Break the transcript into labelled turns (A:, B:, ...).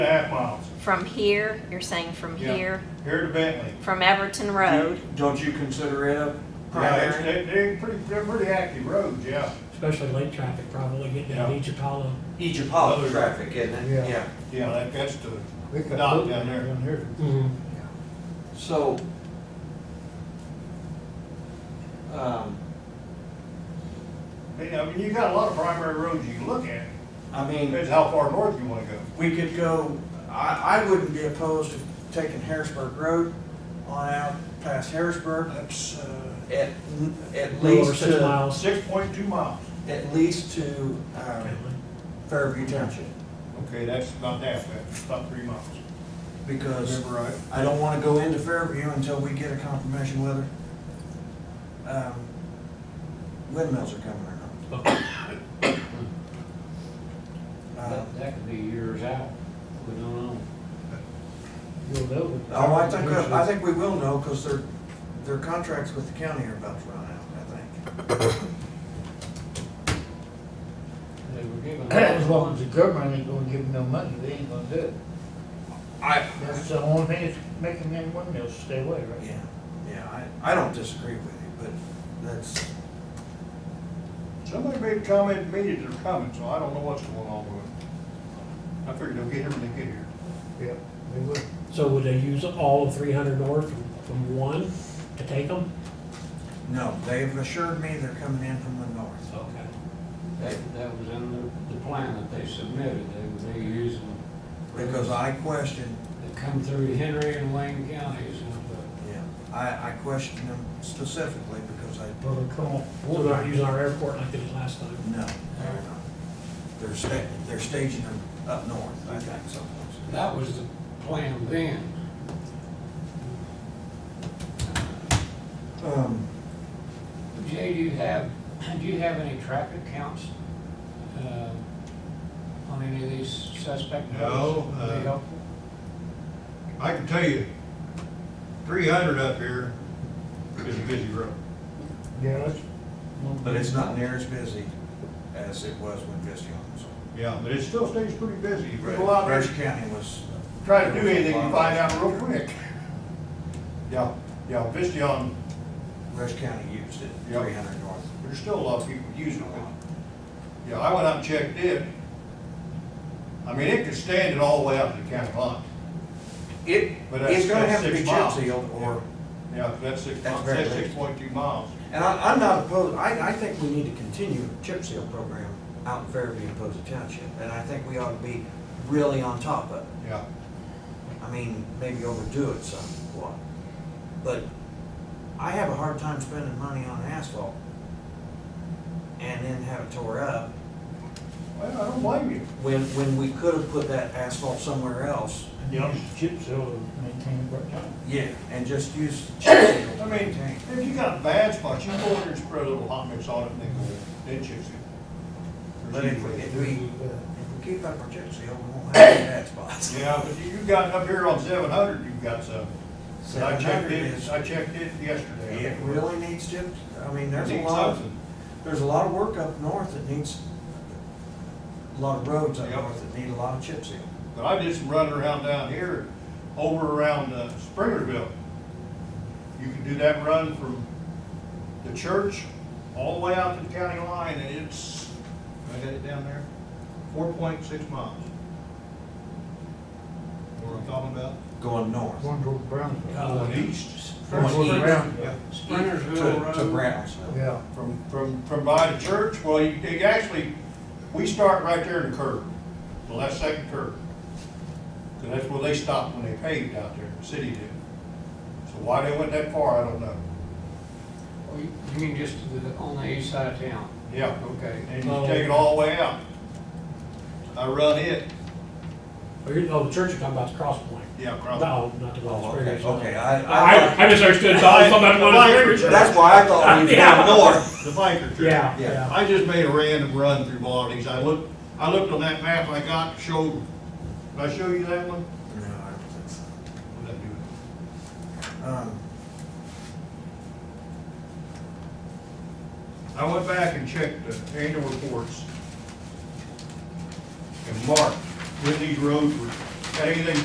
A: half miles.
B: From here, you're saying from
A: Yeah.
B: here,
A: Here to Bentley.
B: from Everton Road,
C: Don't you consider it a
A: Yeah, it's-
C: primary?
A: they- they're pretty, they're pretty active roads, yeah,
D: especially late traffic probably, getting down
A: Yeah.
D: Egypt Hollow.
C: Egypt Hollow traffic, isn't
E: Yeah.
C: it? Yeah.
A: yeah, that- that's the,
E: We could
A: Dock
E: put
A: down there.
E: Down here.
C: So, um,
A: I mean, I mean, you got a lot of primary roads you can look at,
C: I mean,
A: depends how far north you wanna go.
C: we could go, I, I wouldn't be opposed to taking Harrisburg Road on out past Harrisburg.
A: That's, uh,
C: At, at
D: A little over
C: least
D: six
C: to,
D: miles.
A: six point two miles.
C: at least to, um, Fairview Township.
A: Okay, that's not that bad, It's about three miles.
C: Because
A: Remember right?
C: I don't wanna go into Fairview until we get a confirmation whether, um, windmills are coming or not. Uh,
F: That, that could be years out, we don't know.
E: You'll know what the
C: Oh, I think,
E: conversation-
C: I think we will know, because their, their contracts with the county are about to run out, I think.
F: They were given.
E: As long as the government ain't gonna give them no money, they ain't gonna do it.
C: I.
E: That's the only thing that's making them windmills stay away, right?
C: Yeah, yeah, I, I don't disagree with you, but that's,
A: Somebody made a comment to me that they're coming, so I don't know what's going on with it. I figured they'll get here when they get here.
E: Yeah, they would.
D: So would they use all of three hundred north from, from one to take them?
C: no, they've assured me they're coming in from the north.
D: Okay.
F: That, that was in the, the plan that they submitted, they, they use them.
C: Because I questioned,
F: They come through Henry and Wayne counties, and, uh,
C: yeah, I, I questioned them specifically because I,
E: Well, they come on.
D: So they're not using our airport like they did last time?
C: no, they're not. They're sta, they're staging them up north, I think, someplace.
F: that was the plan then.
C: Um,
F: Jay, do you have, do you have any traffic counts, uh, on any of these suspect?
A: No,
F: roads? Would
A: uh,
F: be helpful?
A: I can tell you, three hundred up here is a busy road.
E: Yeah, that's.
C: but it's not near as busy as it was when Visteon was on.
A: Yeah, but it still stays pretty busy. If you
C: Right.
A: go out there,
C: Brush County was.
A: try to do anything, you find out real quick. Yeah, yeah, Vistion,
C: Brush County used it,
A: Yep.
C: three hundred north.
A: there's still a lot of people using it. Yeah, I went out and checked it. I mean, it could stand it all the way up to the county line.
C: It,
A: But that's-
C: it's gonna
A: that's
C: have to be
A: six
C: chip
A: miles.
C: sealed or,
A: Yeah, that's six,
C: That's
A: that's
C: very big.
A: six point two miles.
C: and I, I'm not opposed, I, I think we need to continue the chip seal program out in Fairview and Posey Township. And I think we ought to be really on top of it.
A: Yeah,
C: I mean, maybe overdo it somewhat. But I have a hard time spending money on asphalt and then have it tore up
A: well, I don't blame you.
C: when, when we could have put that asphalt somewhere else.
E: And you use chip seal to maintain it right now.
C: Yeah. And just use chip seal
A: I
C: to
A: mean,
C: maintain.
A: if you got a bad spot, you go in there and spread a little hot mix on it and then go, then chips it.
C: But if we, if we,
E: Uh,
C: if we keep up our chip seal, we won't have any bad spots.
A: Yeah, but you- you've got up here on seven hundred, you've got some. And I checked
C: 700
A: it,
C: is-
A: I checked it yesterday.
C: It really needs chip, I mean, there's a
A: Needs
C: lot,
A: something.
C: there's a lot of work up north that needs, a lot of roads up
A: Yep.
C: north that need a lot of chip seal.
A: But I did some running around down here, over around uh, Springerville. You can do that run from the church all the way out to the county line, and it's, I got it down there, four point six miles. What I'm talking about?
C: Going north.
E: One goes brown.
F: Uh,
A: Going east.
E: One goes brown.
A: Yeah,
F: Sprintersville
C: To,
F: Road.
C: to Brownsville.
E: Yeah.
A: from, from, from by the church, well, you, it actually, we start right there in the curve, the last second curve. And that's where they stopped when they paved out there, the city did. So why they went that far, I don't know.
F: Well, Oh, You you mean just to the- on the east side of town?
A: Yeah,
F: Okay.
A: and you take it all the way out. I run it,
D: Or, you- oh, the church you're talking about is Cross Point?
A: yeah, across.
D: No, not the
C: Oh,
D: one
C: okay,
D: that's
C: okay,
D: Springer's.
C: I, I,
D: I, I misunderstood, so I was talking about the one that's
C: that's why I thought we were
D: Yeah.
C: going north.
A: The biker trail.
D: Yeah,
C: Yeah.
D: yeah.
A: I just made a random run through all these. I looked, I looked on that map I got, showed, did I show you that one?
C: No, I don't think so.
A: What did I do?
C: Um,
A: I went back and checked the annual reports and marked when these roads were Got anything